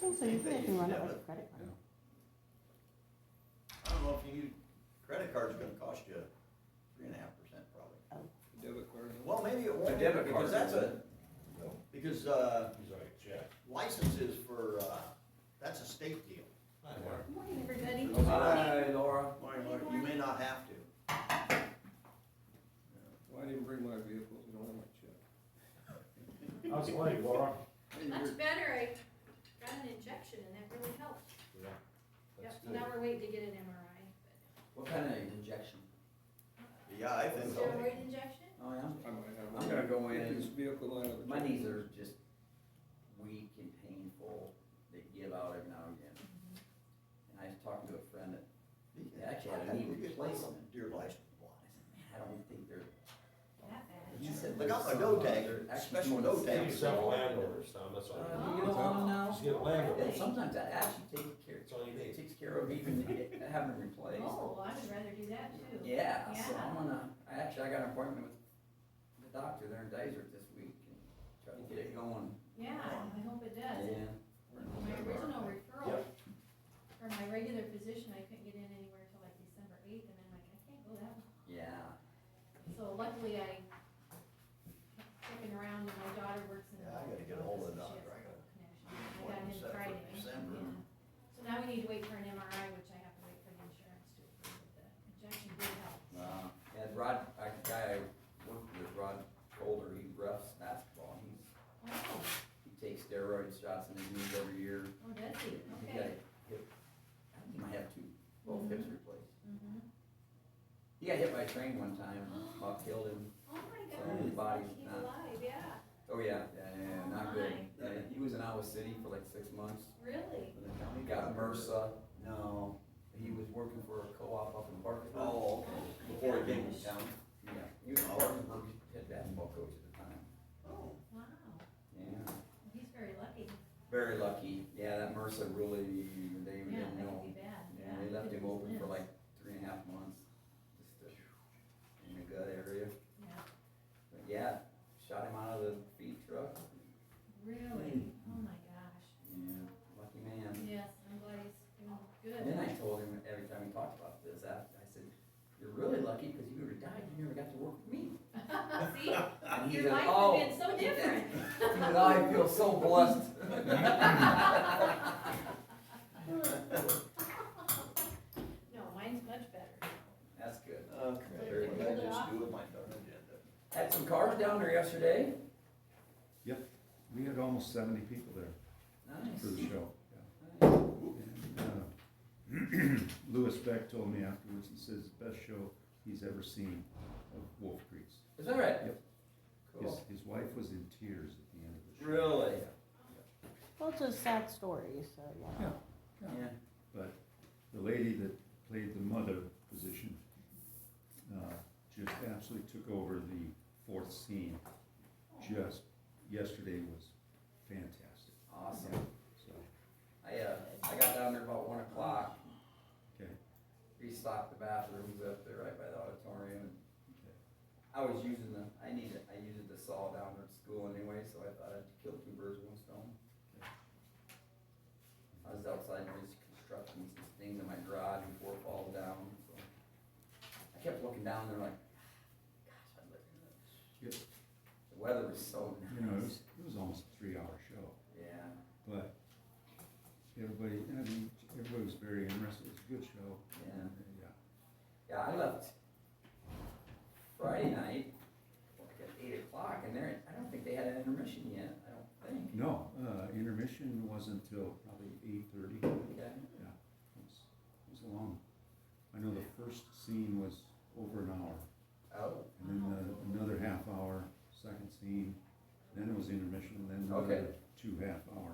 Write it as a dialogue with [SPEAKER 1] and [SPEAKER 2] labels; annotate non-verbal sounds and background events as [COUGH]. [SPEAKER 1] think so, you
[SPEAKER 2] They
[SPEAKER 1] can run it
[SPEAKER 2] have
[SPEAKER 1] with a
[SPEAKER 2] it.
[SPEAKER 1] credit card.
[SPEAKER 2] I don't know if you, credit card's gonna cost you three and a half percent probably.
[SPEAKER 3] Debit card.
[SPEAKER 2] Well, maybe it won't,
[SPEAKER 3] A debit
[SPEAKER 2] because
[SPEAKER 3] card.
[SPEAKER 2] that's a, because, uh,
[SPEAKER 4] He's like, check.
[SPEAKER 2] licenses for, uh, that's a state deal.
[SPEAKER 5] Good Morning, everybody.
[SPEAKER 3] Hi, Laura.
[SPEAKER 2] Marty, Marty, You may not have to.
[SPEAKER 3] Well, I didn't bring my vehicles, I don't have my check.
[SPEAKER 4] How's the leg, Laura?
[SPEAKER 5] Much better. I got an injection and that really helped. Yep, now we're waiting to get an MRI.
[SPEAKER 6] What kind of injection?
[SPEAKER 2] Yeah, I
[SPEAKER 5] but
[SPEAKER 2] think so.
[SPEAKER 5] Steroid injection?
[SPEAKER 6] Oh, yeah.
[SPEAKER 3] I might have.
[SPEAKER 6] I'm gonna go in.
[SPEAKER 3] This vehicle out of.
[SPEAKER 6] My knees are just weak and painful. They give out every now and again. And I was talking to a friend that,
[SPEAKER 2] You
[SPEAKER 6] Actually, I
[SPEAKER 2] can-
[SPEAKER 6] need
[SPEAKER 2] you can
[SPEAKER 6] replacement.
[SPEAKER 2] buy Deer license block.
[SPEAKER 6] I said, man, I don't think they're.
[SPEAKER 5] Not bad.
[SPEAKER 6] He said
[SPEAKER 2] They got
[SPEAKER 6] there's
[SPEAKER 2] my no
[SPEAKER 6] some,
[SPEAKER 2] tag,
[SPEAKER 6] they're actually
[SPEAKER 2] special
[SPEAKER 6] doing
[SPEAKER 2] no
[SPEAKER 6] the
[SPEAKER 2] tag.
[SPEAKER 6] same
[SPEAKER 4] Maybe sell
[SPEAKER 6] thing.
[SPEAKER 4] land over some, that's what I
[SPEAKER 6] Uh,
[SPEAKER 4] mean.
[SPEAKER 6] You don't want them now?
[SPEAKER 4] Just get a land over,
[SPEAKER 6] But sometimes that actually takes care,
[SPEAKER 4] that's all you
[SPEAKER 6] it
[SPEAKER 4] need.
[SPEAKER 6] takes care of even get- having replaced.
[SPEAKER 5] Oh, I would rather do that too.
[SPEAKER 6] Yeah, so
[SPEAKER 5] Yeah.
[SPEAKER 6] I'm gonna, I actually, I got an appointment with the doctor there in Dazer this week and try to get it going.
[SPEAKER 5] Yeah, I hope it does.
[SPEAKER 6] Yeah.
[SPEAKER 5] My original referral
[SPEAKER 4] Yep.
[SPEAKER 5] for my regular physician, I couldn't get in anywhere till like December eighth and I'm like, I can't go that long.
[SPEAKER 6] Yeah.
[SPEAKER 5] So luckily I kept looking around and my daughter works in. the
[SPEAKER 2] Yeah, I gotta get ahold
[SPEAKER 5] office
[SPEAKER 2] of
[SPEAKER 5] and she
[SPEAKER 2] Dr. I got
[SPEAKER 5] has a connection. I got
[SPEAKER 2] appointment set for
[SPEAKER 5] in Friday.
[SPEAKER 2] December.
[SPEAKER 5] yeah. So now we need to wait for an MRI, which I have to wait for the insurance to approve, but the injection did help.
[SPEAKER 6] Uh, and Rod, I, the guy I worked with, Rod Holder, he refs basketball, he's,
[SPEAKER 5] Oh,
[SPEAKER 6] he takes steroid shots in his knees every year.
[SPEAKER 5] oh, does he?
[SPEAKER 6] He got
[SPEAKER 5] Okay. Mm-hmm.
[SPEAKER 6] a hip, I think he might have two, both hips replaced.
[SPEAKER 5] Mhm.
[SPEAKER 6] He got hit by a train one time, about killed him,
[SPEAKER 5] Oh my
[SPEAKER 6] So
[SPEAKER 5] God!
[SPEAKER 6] his body's
[SPEAKER 5] he's
[SPEAKER 6] not-
[SPEAKER 5] alive, yeah,
[SPEAKER 6] oh yeah, yeah, yeah, yeah, not
[SPEAKER 5] [GASPS]
[SPEAKER 6] good.
[SPEAKER 5] Oh,
[SPEAKER 6] Yeah, he was in Iowa City for like six months,
[SPEAKER 5] really?
[SPEAKER 6] he got MRSA, no, he was working for a co-op up in
[SPEAKER 2] Oh,
[SPEAKER 6] Barkerville.
[SPEAKER 5] Oh,
[SPEAKER 2] okay.
[SPEAKER 5] my
[SPEAKER 2] Before it
[SPEAKER 5] gosh.
[SPEAKER 2] came
[SPEAKER 6] Yeah, he was a Barkerville head basketball coach at the time,
[SPEAKER 2] Oh,
[SPEAKER 5] Wow,
[SPEAKER 6] yeah.
[SPEAKER 5] he's very lucky.
[SPEAKER 6] Very lucky. Yeah, that MRSA really, they
[SPEAKER 5] Yeah,
[SPEAKER 6] didn't
[SPEAKER 5] that
[SPEAKER 6] know.
[SPEAKER 5] could be bad,
[SPEAKER 6] Yeah,
[SPEAKER 5] yeah.
[SPEAKER 6] they left
[SPEAKER 5] could
[SPEAKER 6] him
[SPEAKER 5] lose
[SPEAKER 6] open for
[SPEAKER 5] limbs.
[SPEAKER 6] like three and a half months, just to- in the gut area.
[SPEAKER 5] Yeah,
[SPEAKER 6] But yeah, shot him out of the feed truck.
[SPEAKER 5] really?
[SPEAKER 6] Hmm.
[SPEAKER 5] Oh my gosh.
[SPEAKER 6] Yeah, lucky man.
[SPEAKER 5] Yes, I'm glad he's doing good.
[SPEAKER 6] Then I told him every time we talked about this, I, I said, you're really lucky because you would have died, you never got to work with me.
[SPEAKER 5] [LAUGHS] See,
[SPEAKER 6] And he
[SPEAKER 5] your
[SPEAKER 6] said,
[SPEAKER 5] life
[SPEAKER 6] "Oh."
[SPEAKER 5] would have
[SPEAKER 6] [LAUGHS]
[SPEAKER 5] been so different. [LAUGHS]
[SPEAKER 6] He said, I feel so blessed. [LAUGHS]
[SPEAKER 5] No, mine's much better.
[SPEAKER 6] That's good.
[SPEAKER 2] okay, very good. I just do what my daughter did.
[SPEAKER 6] Had some cars down there yesterday.
[SPEAKER 7] We had almost seventy people there
[SPEAKER 6] Nice.
[SPEAKER 7] for the show.
[SPEAKER 6] Nice.
[SPEAKER 7] And, uh, [CLEARS THROAT] Louis Beck told me afterwards, he says, best show he's ever seen of Wolf Creek's.
[SPEAKER 6] Is that right?
[SPEAKER 7] Yep. His,
[SPEAKER 6] Cool.
[SPEAKER 7] his wife was in tears at the end of the show.
[SPEAKER 6] Really?
[SPEAKER 1] Well, it's a sad story, so, yeah.
[SPEAKER 7] Yeah.
[SPEAKER 6] Yeah.
[SPEAKER 7] But the lady that played the mother position, uh, just absolutely took over the fourth scene. Just, yesterday was fantastic,
[SPEAKER 6] Awesome.
[SPEAKER 7] so,
[SPEAKER 6] I, uh, I got down there about one o'clock,
[SPEAKER 7] okay.
[SPEAKER 6] restocked the bathrooms up there right by the auditorium.
[SPEAKER 7] okay.
[SPEAKER 6] I was using the, I needed, I used the saw down there at school anyway, so I thought I'd kill two birds with one stone. I was outside just constructing some things in my garage before it falls down, so. I kept looking down there like, gosh, I'd like to.
[SPEAKER 7] Yep.
[SPEAKER 6] The weather was so
[SPEAKER 7] You know, it
[SPEAKER 6] nice.
[SPEAKER 7] was, it was almost a three-hour show.
[SPEAKER 6] Yeah.
[SPEAKER 7] But everybody, I mean, everybody was very interested, it was a good show.
[SPEAKER 6] Yeah.
[SPEAKER 7] And, uh, Yeah.
[SPEAKER 6] Yeah, I left Friday night, like at eight o'clock, and there, I don't think they had an intermission yet, I don't think.
[SPEAKER 7] No, uh, intermission wasn't until probably eight-thirty, it
[SPEAKER 6] Okay.
[SPEAKER 7] was, it was long. I know the first scene was over an hour,
[SPEAKER 6] Oh,
[SPEAKER 7] and then uh, another half hour, second scene, then it was intermission, then another
[SPEAKER 6] Okay.
[SPEAKER 7] two half hour